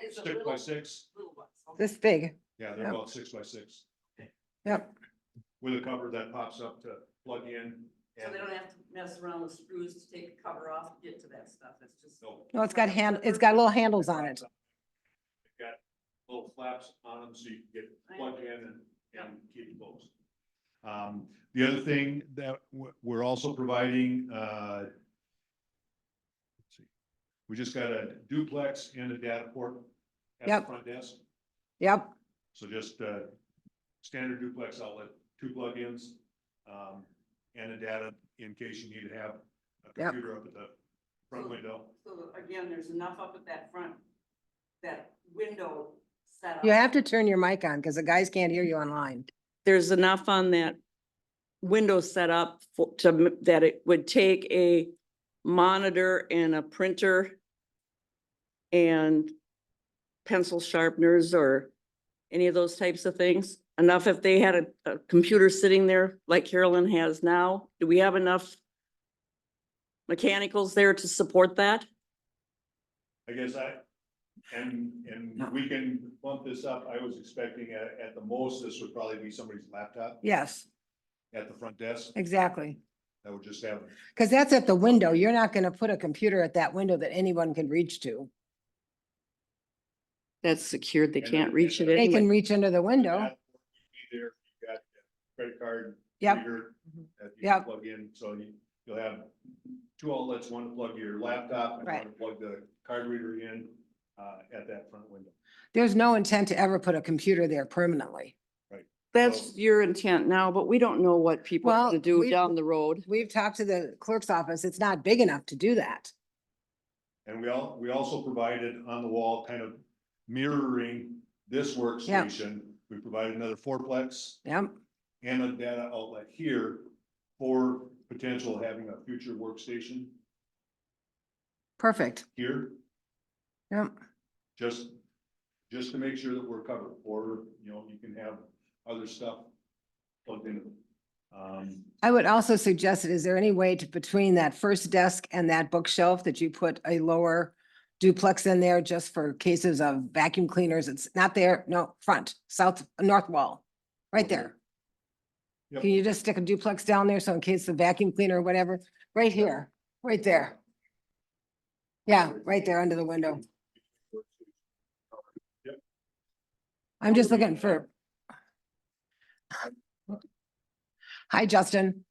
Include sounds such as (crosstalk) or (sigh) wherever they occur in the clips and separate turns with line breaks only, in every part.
It's a
six by
little-
six,
Little ones. okay.
this big,
yeah, they're
Yeah.
about six by six,
yep,
with a cover that pops up to plug in.
So
and-
they don't have to mess around with screws to take the cover off, and get to that stuff, it's just.
No.
no, it's got hand, it's got little handles on it,
They've Got little flaps on them so you can
I
get plugged in and,
Yeah.
and keep it closed. Um, the other thing that we're, we're also providing, uh, let's see, we just got a duplex and a data port at
Yep.
the front desk.
yep,
So just, uh, standard duplex outlet, two plugins, um, and a data in case you need to have a
Yep.
computer up at the front window.
So again, there's enough up at that front, that window setup.
you have to turn your mic on, because the guys can't hear you online.
there's enough on that window setup for, to, m- that it would take a monitor and a printer and pencil sharpeners or any of those types of things. Enough if they had a, a computer sitting there like Carolyn has now, do we have enough mechanicals there to support that?
I guess I, and, and
No.
we can bump this up. I was expecting at, at the most, this would probably be somebody's laptop
Yes,
at the front desk.
exactly,
That would just have,
because that's at the window, you're not gonna put a computer at that window that anyone can reach to.
That's secured, they
And I-
can't reach it
and I-
They can
anyway.
reach under the window,
be there, you've got credit card.
Yep. Mm-hmm.
reader That you can
Yep.
plug in, so you, you'll have two outlets, one to plug your laptop and one
Right.
to plug the card reader in, uh, at that front window.
there's no intent to ever put a computer there permanently.
That's your intent now, but we don't know what people have
Well,
to do
we-
down the road.
We've talked to the clerk's office, it's not big enough to do that.
And we all, we also provided on the wall kind of mirroring this workstation. We provided another fourplex
Yep,
and a data outlet here for potential having a future workstation
perfect,
here,
yep,
just, just to make sure that we're covered, or, you know, you can have other stuff plugged into them. Um,
I would also suggest, that is there any way to, between that first desk and that bookshelf, that you put a lower duplex in there just for cases of vacuum cleaners? It's not there, no, front, south, north wall, right
Okay.
there.
Yep.
Can you just stick a duplex down there? So in case the vacuum cleaner or whatever, right here, right there. Yeah, right there under the window. I'm just looking for. Hi, Justin.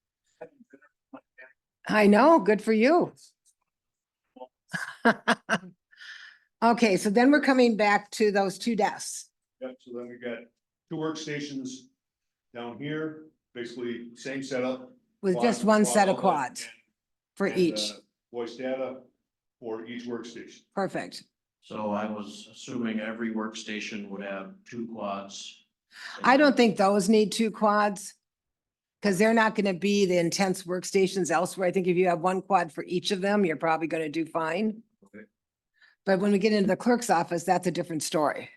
I know, good for you. (laughs) Okay, so then we're coming back to those two desks.
Yep, so then we got two workstations down here, basically same setup.
with just
quad-
one
quad
set of
outlet
quads
and-
for
and,
each.
uh, Voice data for each workstation.
Perfect.
So I was assuming every workstation would have two quads.
I don't think those need two quads. Cause they're not gonna be the intense workstations elsewhere. I think if you have one quad for each of them, you're probably gonna do fine.
Okay.
But when we get into the clerk's office, that's a different story.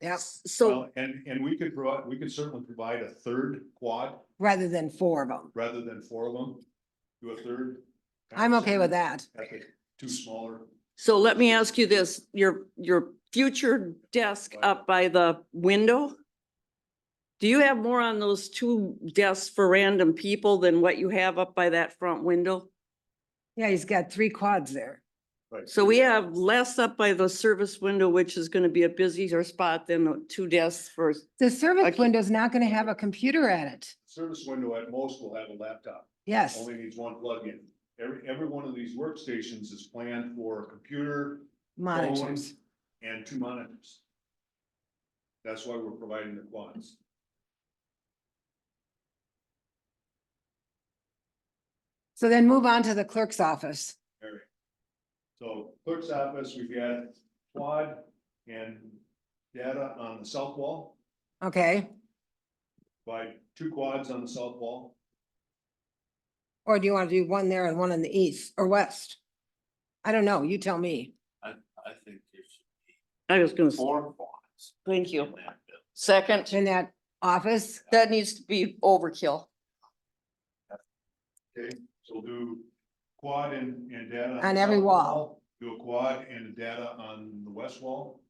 Yep,
So
Well, And, and we could provide, we could certainly provide a third quad
rather than four of them.
rather than four of them. Do a third.
I'm okay with that.
At the Two smaller,
So let me ask you this, your, your future desk up by the window? Do you have more on those two desks for random people than what you have up by that front window?
Yeah, he's got three quads there.
right.
So we have less up by the service window, which is gonna be a busier spot than the two desks for,
The
I
service
keep-
window's not gonna have a computer at it.
Service window at most will have a laptop,
Yes,
only needs one plug-in. Every, every one of these workstations is planned for a computer
monitors.
and two monitors. That's why we're providing the quads.
So then move on to the clerk's office.
Alright. So clerk's office, we've got quad and data on the south wall,
Okay,
by two quads on the south wall.
or do you wanna do one there and one in the east or west? I don't know, you tell me.
I, I think there's
I was gonna, s-
four quads.
thank
in
you.
that building.
Second,
In that office,
that needs to be overkill.
So we'll do quad and, and data.
On every
south
wall.
Do a quad and data on the west wall.